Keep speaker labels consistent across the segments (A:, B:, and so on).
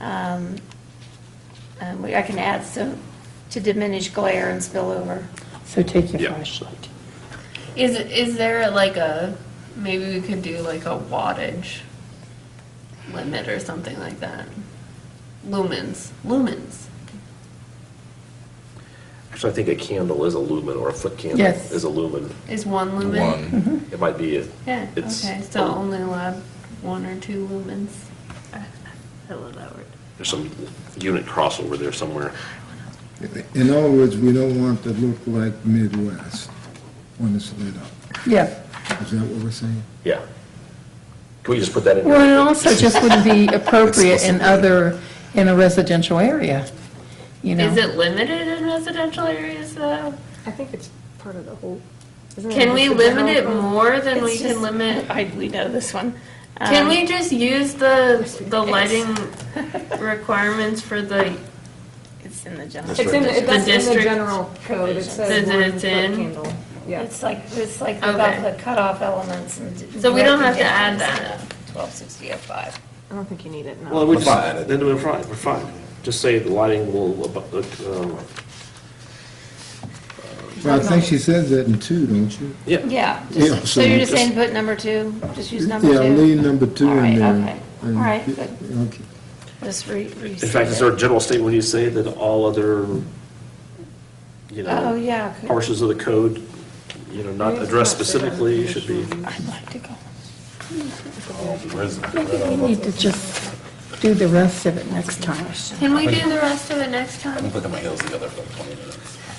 A: um, um, we- I can add some to diminish glare and spillover.
B: So take your
C: Yeah.
B: flashlight.
D: Is is there like a maybe we could do like a wattage limit or something like that? Lumens, lumens.
C: Actually, I think a candle is a lumen, or a foot candle
B: Yes.
C: is a lumen.
D: Is one lumen?
E: One.
C: It might be, a-
D: Yeah.
C: it's.
D: okay. So only allowed one or two lumens.
F: I love that word.
C: There's some unit crossover there somewhere.
E: In other words, we don't want to look like Midwest when it's lit up.
B: Yeah.
E: Is that what we're saying?
C: Yeah. Can we just put that in?
B: Well, it also just wouldn't be appropriate in other, in a residential area, you know?
D: Is it limited in residential areas though?
F: I think it's part of the whole. isn't it
D: Can we
F: just the
D: limit it
F: general code?
D: more than we
A: It's
D: can
A: just-
D: limit?
A: I, we know this one.
D: Can
A: Um,
D: we just use the the lighting requirements for the
A: It's in the general.
F: It's in,
D: The
F: the- that's in the
D: district-
F: general code, it says
D: Says
F: one
D: it's
F: foot
D: in.
F: candle. Yeah.
A: It's like, it's like
D: Okay.
A: without the cutoff elements and.
D: So we don't have to add that.
A: Twelve sixty oh five.
F: I don't think you need it, no.
C: Well, we just, then we're fine, we're fine. Just say the lighting will, abo- um,
E: Well, I think she says that in two, don't you?
C: yeah.
A: Yeah,
E: Yeah,
A: just- so
E: so
A: you're just
C: just-
A: saying put number two, just use number two?
E: Yeah, leave number two
A: All right,
E: in there.
A: okay. All
E: And-
A: right, good.
E: Okay.
A: Just re. In
C: In fact, it's our general statement, when you say that all other, you
A: Oh,
C: know,
A: yeah. okay.
C: portions of the code, you know, not
F: Maybe it's
C: addressed
F: not there.
C: specifically, should be.
B: I'd like to go. Maybe we need to just do the rest of it next time.
D: Can we do the rest of it next time?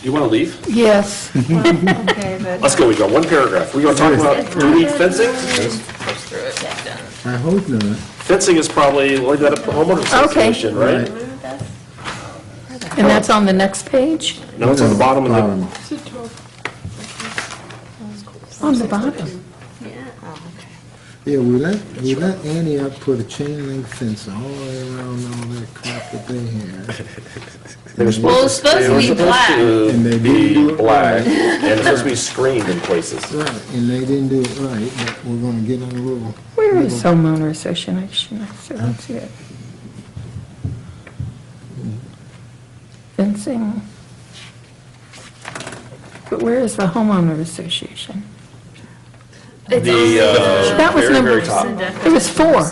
C: You want to leave?
B: Yes.
D: Okay, but.
C: Let's go, we got one paragraph. We going to talk about, do we need fencing?
E: I hope not.
C: Fencing is probably, well, that up to the homeowners
B: Okay.
C: association, right?
B: And that's on the next page?
C: No, it's on the bottom of the,
E: Bottom.
B: On the bottom.
E: Yeah, we let, we let Antioch put a chain link fence all around all that crap that they had.
C: they were
D: Well,
C: supposed
D: it's supposed
C: to, they were
D: to be
C: supposed
D: black.
E: And they
C: to
E: didn't do
C: be
E: it
C: black,
E: right.
C: and it's supposed to be screened in places.
E: Right, and they didn't do it right, but we're gonna get on a little.
B: Where is homeowner association? I still don't see it. Fencing. But where is the homeowner association?
C: The, uh,
B: That was
C: very,
B: number,
C: very top.
B: it was four,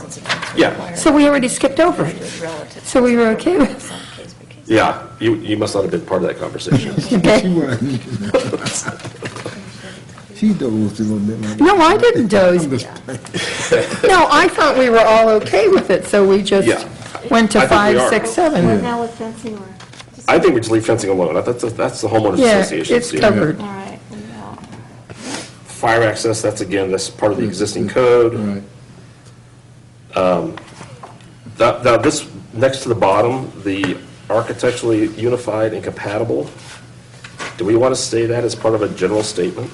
C: Yeah,
B: so we already skipped over it.
A: Relative.
B: So we were okay with
C: yeah, you, you must not have been part of that conversation.
E: She wasn't. She dozed a little bit like.
B: No, I didn't doze.
E: I'm just-
B: No, I thought we were all okay with it, so we
C: Yeah.
B: just went to
C: I think we
B: five,
C: are.
B: six, seven.
F: Now with fencing or?
C: I think we just leave fencing alone, I thought that's, that's the homeowners
B: Yeah,
C: association's
B: it's
C: deal.
B: covered.
A: All right, we know.
C: Fire access, that's again, that's part
E: Mm-hmm.
C: of the existing code.
E: Right.
C: Now, now this, next to the bottom, the architecturally unified and compatible, do we want to say that as part of a general statement?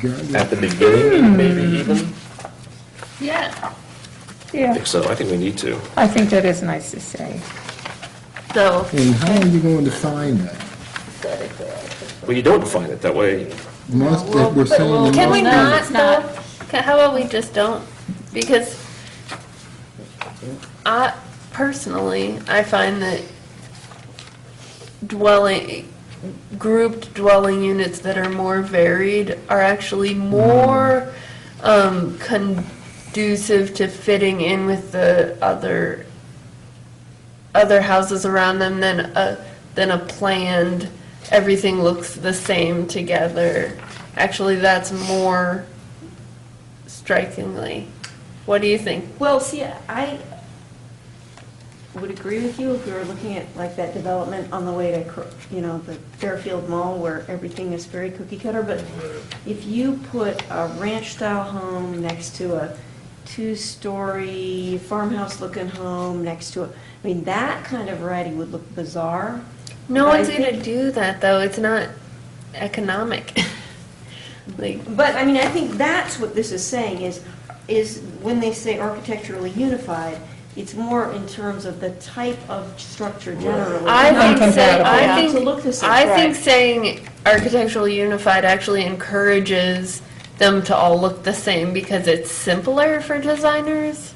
E: You got it.
C: At the beginning, maybe even?
D: Yeah.
C: I
B: Yeah,
C: think so, I think we need to.
B: I think that is nice to say.
D: So
E: And how are you going to define that?
C: Well, you don't define it that way.
E: Must, if we're saying. it
D: Can we
E: must be-
D: not,
A: it's not.
D: though? Ca- How about we just don't? Because I, personally, I find that dwelling, grouped dwelling units that are more varied are actually more um, conducive to fitting in with the other, other houses around them than a, than a planned, everything looks the same together. Actually, that's more strikingly. What do you think?
G: Well, see, I would agree with you if we were looking at like that development on the way to, Cro- you know, the Fairfield Mall where everything is very cookie cutter, but if you put a ranch-style home next to a two-story farmhouse-looking home next to a, I mean, that kind of variety would look bizarre.
D: No
G: But I
D: one's gonna
G: think-
D: do that though. It's not economic. like
G: But, I mean, I think that's what this is saying, is, is when they say architecturally unified, it's more in terms of the type of structure generally.
D: I
G: not
D: think, say,
G: compatible.
D: I
G: To look the
D: think,
G: same.
D: I think saying architectural unified actually encourages them to all look the same because it's simpler for designers.